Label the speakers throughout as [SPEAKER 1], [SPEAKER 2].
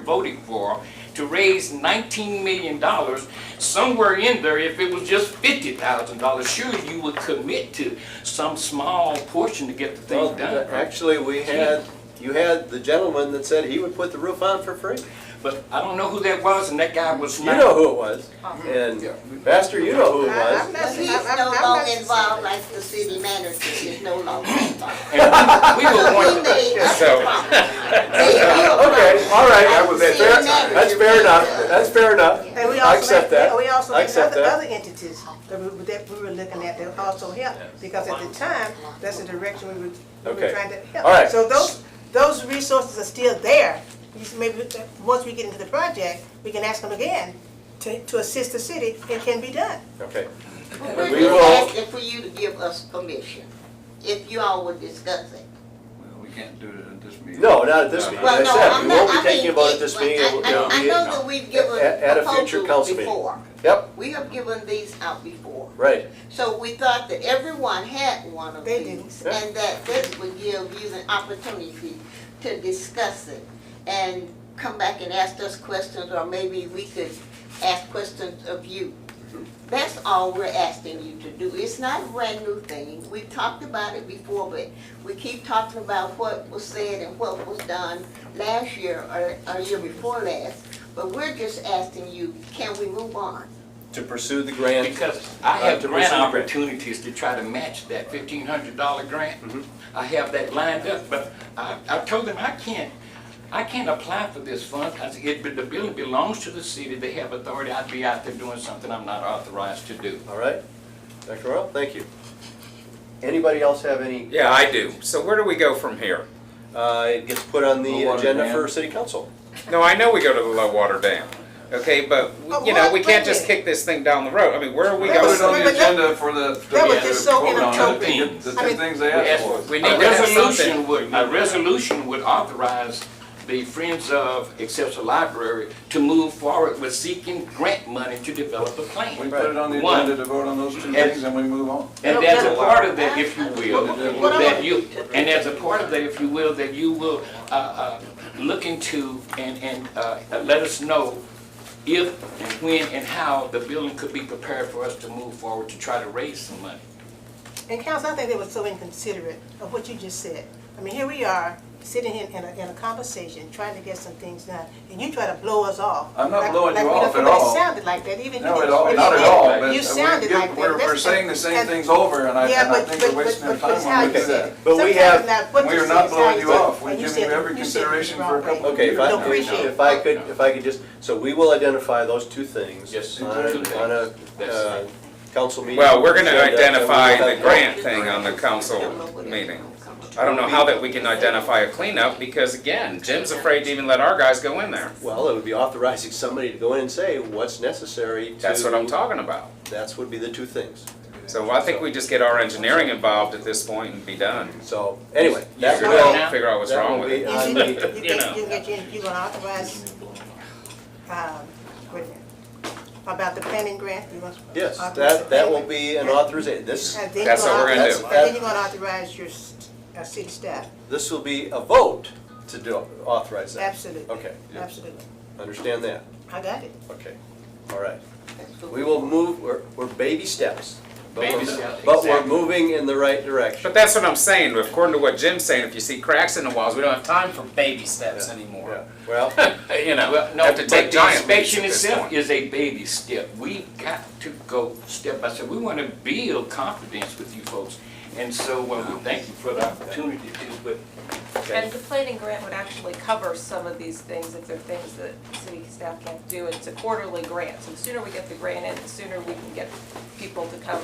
[SPEAKER 1] voted for to raise nineteen million dollars, somewhere in there, if it was just fifty thousand dollars, sure, you would commit to some small portion to get the
[SPEAKER 2] Well,
[SPEAKER 1] thing done.
[SPEAKER 2] actually, we had, you had the gentleman that said he would put the roof on for free.
[SPEAKER 1] But I don't know who that was, and that guy was
[SPEAKER 2] You
[SPEAKER 1] not.
[SPEAKER 2] know who it was,
[SPEAKER 3] Uh-huh.
[SPEAKER 2] and Pastor, you know who it
[SPEAKER 4] I- I'm
[SPEAKER 2] was.
[SPEAKER 4] not-
[SPEAKER 3] But he's
[SPEAKER 4] I'm- I'm-
[SPEAKER 3] no
[SPEAKER 4] I'm not-
[SPEAKER 3] longer involved, like the city manager is no longer involved.
[SPEAKER 1] And we- we were
[SPEAKER 3] So he
[SPEAKER 1] wondering-
[SPEAKER 3] made us
[SPEAKER 5] So-
[SPEAKER 3] the problem. They built
[SPEAKER 2] Uh, Okay, all right.
[SPEAKER 3] I was at
[SPEAKER 2] Fair-
[SPEAKER 3] the manager.
[SPEAKER 2] That's fair enough, that's fair enough.
[SPEAKER 4] And we
[SPEAKER 2] I
[SPEAKER 4] also
[SPEAKER 2] accept
[SPEAKER 4] had-
[SPEAKER 2] that.
[SPEAKER 4] We also
[SPEAKER 2] I
[SPEAKER 4] had
[SPEAKER 2] accept
[SPEAKER 4] other,
[SPEAKER 2] that.
[SPEAKER 4] other entities that we, that we were looking at that also helped, because at the time, that's the direction we were, we were
[SPEAKER 2] Okay.
[SPEAKER 4] trying to help.
[SPEAKER 2] All right.
[SPEAKER 4] So those, those resources are still there, You s- maybe, uh, once we get into the project, we can ask them again to, to assist the city, it can be done.
[SPEAKER 2] Okay,
[SPEAKER 3] Well,
[SPEAKER 2] We
[SPEAKER 3] We're
[SPEAKER 2] will-
[SPEAKER 3] just asking for you to give us permission, if you all would discuss it.
[SPEAKER 6] Well, We can't do it at this meeting.
[SPEAKER 2] no, not at this meeting,
[SPEAKER 3] Well,
[SPEAKER 2] As
[SPEAKER 3] no,
[SPEAKER 2] I said,
[SPEAKER 3] I'm
[SPEAKER 2] we
[SPEAKER 3] not-
[SPEAKER 2] won't
[SPEAKER 3] I
[SPEAKER 2] be taking
[SPEAKER 3] mean,
[SPEAKER 2] about
[SPEAKER 3] it-
[SPEAKER 2] it this
[SPEAKER 3] well,
[SPEAKER 2] meeting. We'll-
[SPEAKER 3] I- I, I
[SPEAKER 2] it'll be-
[SPEAKER 3] know that we've given
[SPEAKER 2] at- at a future
[SPEAKER 3] proposals
[SPEAKER 2] council meeting.
[SPEAKER 3] before.
[SPEAKER 2] Yep,
[SPEAKER 3] We have given these out before.
[SPEAKER 2] right,
[SPEAKER 3] So we thought that everyone had one of
[SPEAKER 4] They do.
[SPEAKER 3] these,
[SPEAKER 2] Yeah.
[SPEAKER 3] and that this would give you an opportunity to discuss it and come back and ask us questions, or maybe we could ask questions of you. That's all we're asking you to do. It's not a brand new thing. We talked about it before, but we keep talking about what was said and what was done last year or, or year before last. But we're just asking you, can we move on?
[SPEAKER 2] to pursue the grant.
[SPEAKER 1] Because I have
[SPEAKER 2] Uh, to
[SPEAKER 1] grant
[SPEAKER 2] pursue the grant.
[SPEAKER 1] opportunities to try to match that fifteen hundred dollar grant.
[SPEAKER 6] Mm-hmm.
[SPEAKER 1] I have that lined up, but I, I told them I can't, I can't apply for this fund, cause it, the building belongs to the city, they have authority, I'd be out there doing something I'm not authorized to do.
[SPEAKER 2] All right, Dr. Royal, thank you. Anybody else have any,
[SPEAKER 5] Yeah, I do. So where do we go from here?
[SPEAKER 2] uh, it gets put on the
[SPEAKER 6] Well, what,
[SPEAKER 2] agenda
[SPEAKER 6] man?
[SPEAKER 2] for city council?
[SPEAKER 5] No, I know we go to the low water dam. Okay, but
[SPEAKER 4] But
[SPEAKER 5] you know, we
[SPEAKER 4] what- Oh, wait
[SPEAKER 5] can't
[SPEAKER 4] a
[SPEAKER 5] just
[SPEAKER 4] minute.
[SPEAKER 5] kick this thing down the road. I mean, where are we
[SPEAKER 4] That
[SPEAKER 6] Put
[SPEAKER 4] was-
[SPEAKER 5] going?
[SPEAKER 6] it on
[SPEAKER 4] but
[SPEAKER 6] the
[SPEAKER 4] that-
[SPEAKER 6] agenda for the.
[SPEAKER 4] that was just so
[SPEAKER 6] vote on it.
[SPEAKER 1] inappropriate.
[SPEAKER 6] The
[SPEAKER 4] I
[SPEAKER 6] two
[SPEAKER 4] mean-
[SPEAKER 6] things they
[SPEAKER 1] We
[SPEAKER 6] asked
[SPEAKER 1] asked-
[SPEAKER 6] for.
[SPEAKER 1] we need
[SPEAKER 5] I
[SPEAKER 1] a
[SPEAKER 5] would have
[SPEAKER 1] resolution
[SPEAKER 5] something.
[SPEAKER 1] would, a resolution would authorize the Friends of Exceptional Library to move forward with seeking grant money to develop a
[SPEAKER 6] We
[SPEAKER 1] plan.
[SPEAKER 6] put it on the
[SPEAKER 1] One.
[SPEAKER 6] agenda to vote on those two
[SPEAKER 1] And-
[SPEAKER 6] things and we move on.
[SPEAKER 1] And there's a part of that, if you will,
[SPEAKER 6] What
[SPEAKER 1] that you, and there's a part of that, if you will, that you will, uh, uh, look into and, and, uh, let us know if, and when, and how the building could be prepared for us to move forward to try to raise some money.
[SPEAKER 4] And council, I think they were so inconsiderate of what you just said. I mean, here we are, sitting in, in a, in a conversation, trying to get some things done, and you try to blow us off.
[SPEAKER 6] I'm not
[SPEAKER 4] Like-
[SPEAKER 6] blowing
[SPEAKER 4] like
[SPEAKER 6] you
[SPEAKER 4] we don't-
[SPEAKER 6] off at
[SPEAKER 4] somebody
[SPEAKER 6] all.
[SPEAKER 4] sounded like that, even you.
[SPEAKER 6] No, at
[SPEAKER 4] didn't-
[SPEAKER 6] all,
[SPEAKER 4] even
[SPEAKER 6] not at
[SPEAKER 4] you
[SPEAKER 6] all,
[SPEAKER 4] didn't.
[SPEAKER 6] but
[SPEAKER 4] You
[SPEAKER 6] we're,
[SPEAKER 4] sounded like
[SPEAKER 6] giving-
[SPEAKER 4] that.
[SPEAKER 6] we're, we're
[SPEAKER 4] That's-
[SPEAKER 6] saying the same
[SPEAKER 4] and-
[SPEAKER 6] things over and I,
[SPEAKER 4] Yeah,
[SPEAKER 6] and I
[SPEAKER 4] but-
[SPEAKER 6] think
[SPEAKER 4] but-
[SPEAKER 6] we're wasting our
[SPEAKER 4] but- but it's
[SPEAKER 6] time
[SPEAKER 4] how
[SPEAKER 6] when we
[SPEAKER 4] you
[SPEAKER 6] do
[SPEAKER 4] said
[SPEAKER 6] that.
[SPEAKER 4] it.
[SPEAKER 2] But we have-
[SPEAKER 4] Sometimes not what
[SPEAKER 6] we
[SPEAKER 4] you
[SPEAKER 6] are
[SPEAKER 4] said
[SPEAKER 6] not
[SPEAKER 4] is how
[SPEAKER 6] blowing you
[SPEAKER 4] said it,
[SPEAKER 6] off. We're
[SPEAKER 4] and you
[SPEAKER 6] giving
[SPEAKER 4] said
[SPEAKER 6] you
[SPEAKER 4] it-
[SPEAKER 6] every
[SPEAKER 4] you said it the
[SPEAKER 6] consideration for a
[SPEAKER 4] wrong way.
[SPEAKER 6] couple of
[SPEAKER 2] Okay, if I,
[SPEAKER 4] No, appreciate
[SPEAKER 2] if I could, if I could just, so we will identify those two things.
[SPEAKER 1] Yes.
[SPEAKER 2] On a, on a, uh, council meeting.
[SPEAKER 5] Well, we're going to
[SPEAKER 2] agenda, and we'll
[SPEAKER 5] identify
[SPEAKER 2] have-
[SPEAKER 5] the grant thing on the council meeting. I don't know how that we can identify a cleanup because again, Jim's afraid to even let our guys go in there.
[SPEAKER 2] Well, it would be authorizing somebody to go in and say what's necessary to.
[SPEAKER 5] That's what I'm talking about.
[SPEAKER 2] That's would be the two things.
[SPEAKER 5] So I think we just get our engineering involved at this point and be done.
[SPEAKER 2] So, anyway, that
[SPEAKER 5] Figure
[SPEAKER 2] will.
[SPEAKER 5] it out, figure out what's
[SPEAKER 2] that
[SPEAKER 5] wrong
[SPEAKER 2] will
[SPEAKER 5] with
[SPEAKER 2] be
[SPEAKER 5] it.
[SPEAKER 2] on
[SPEAKER 4] You
[SPEAKER 2] the-
[SPEAKER 4] said, you
[SPEAKER 5] You know.
[SPEAKER 4] think you get, you- you gonna authorize, um, wait a minute, about the planning grant? You want to
[SPEAKER 2] Yes,
[SPEAKER 4] authorize the
[SPEAKER 2] that, that will
[SPEAKER 4] planning?
[SPEAKER 2] be an authorization. This,
[SPEAKER 4] And then
[SPEAKER 5] That's
[SPEAKER 4] you're
[SPEAKER 5] what we're gonna
[SPEAKER 4] authorize-
[SPEAKER 2] do.
[SPEAKER 4] And then you're gonna authorize your, s- uh, city staff,
[SPEAKER 2] this will be a vote to do, authorize that.
[SPEAKER 4] absolutely.
[SPEAKER 2] Okay,
[SPEAKER 4] Absolutely,
[SPEAKER 2] understand that.
[SPEAKER 4] I got it.
[SPEAKER 2] Okay, all right.
[SPEAKER 3] That's what
[SPEAKER 2] We will move, we're, we're baby steps. but we're-
[SPEAKER 1] Baby steps,
[SPEAKER 2] But we're
[SPEAKER 1] exactly.
[SPEAKER 2] moving in the right direction.
[SPEAKER 5] But that's what I'm saying. According to what Jim's saying, if you see cracks in the walls, we don't have time for baby steps
[SPEAKER 2] Yeah,
[SPEAKER 5] anymore.
[SPEAKER 2] Well,
[SPEAKER 5] you know,
[SPEAKER 1] Well, no,
[SPEAKER 5] have to take
[SPEAKER 1] but the
[SPEAKER 5] giant leaps
[SPEAKER 1] inspection
[SPEAKER 5] at this
[SPEAKER 1] itself
[SPEAKER 5] point.
[SPEAKER 1] is a baby step. We've got to go step by step. We want to build confidence with you folks. And so, uh, we thank you for the opportunity to, but
[SPEAKER 7] And the planning grant would actually cover some of these things if they're things that city staff can't do. It's a quarterly grant, so the sooner we get the grant in, the sooner we can get people to come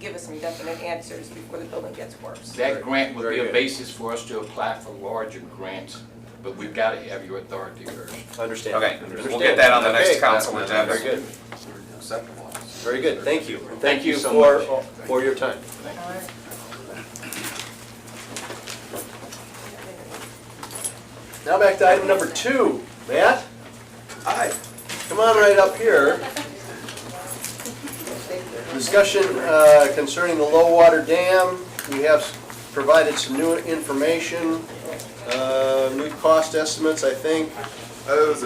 [SPEAKER 7] give us some definite answers before the building gets worse.
[SPEAKER 1] that grant would
[SPEAKER 2] Very
[SPEAKER 1] be a
[SPEAKER 2] good.
[SPEAKER 1] basis for us to apply for larger grants, but we've got to have your authority first.
[SPEAKER 2] understand.
[SPEAKER 5] Okay, we'll
[SPEAKER 2] understand.
[SPEAKER 5] get that on the
[SPEAKER 2] Okay.
[SPEAKER 5] next council
[SPEAKER 2] Very
[SPEAKER 5] agenda.
[SPEAKER 2] good,
[SPEAKER 6] Acceptable.
[SPEAKER 2] very good, thank you. And
[SPEAKER 1] Thank
[SPEAKER 2] Thank you
[SPEAKER 1] you so
[SPEAKER 2] for, for your time.
[SPEAKER 4] All right.
[SPEAKER 2] Now back to item number two. Matt,
[SPEAKER 6] Aye.
[SPEAKER 2] come on right up here. Discussion uh, concerning the low water dam. We have provided some new information, uh, new cost estimates, I think.
[SPEAKER 6] Those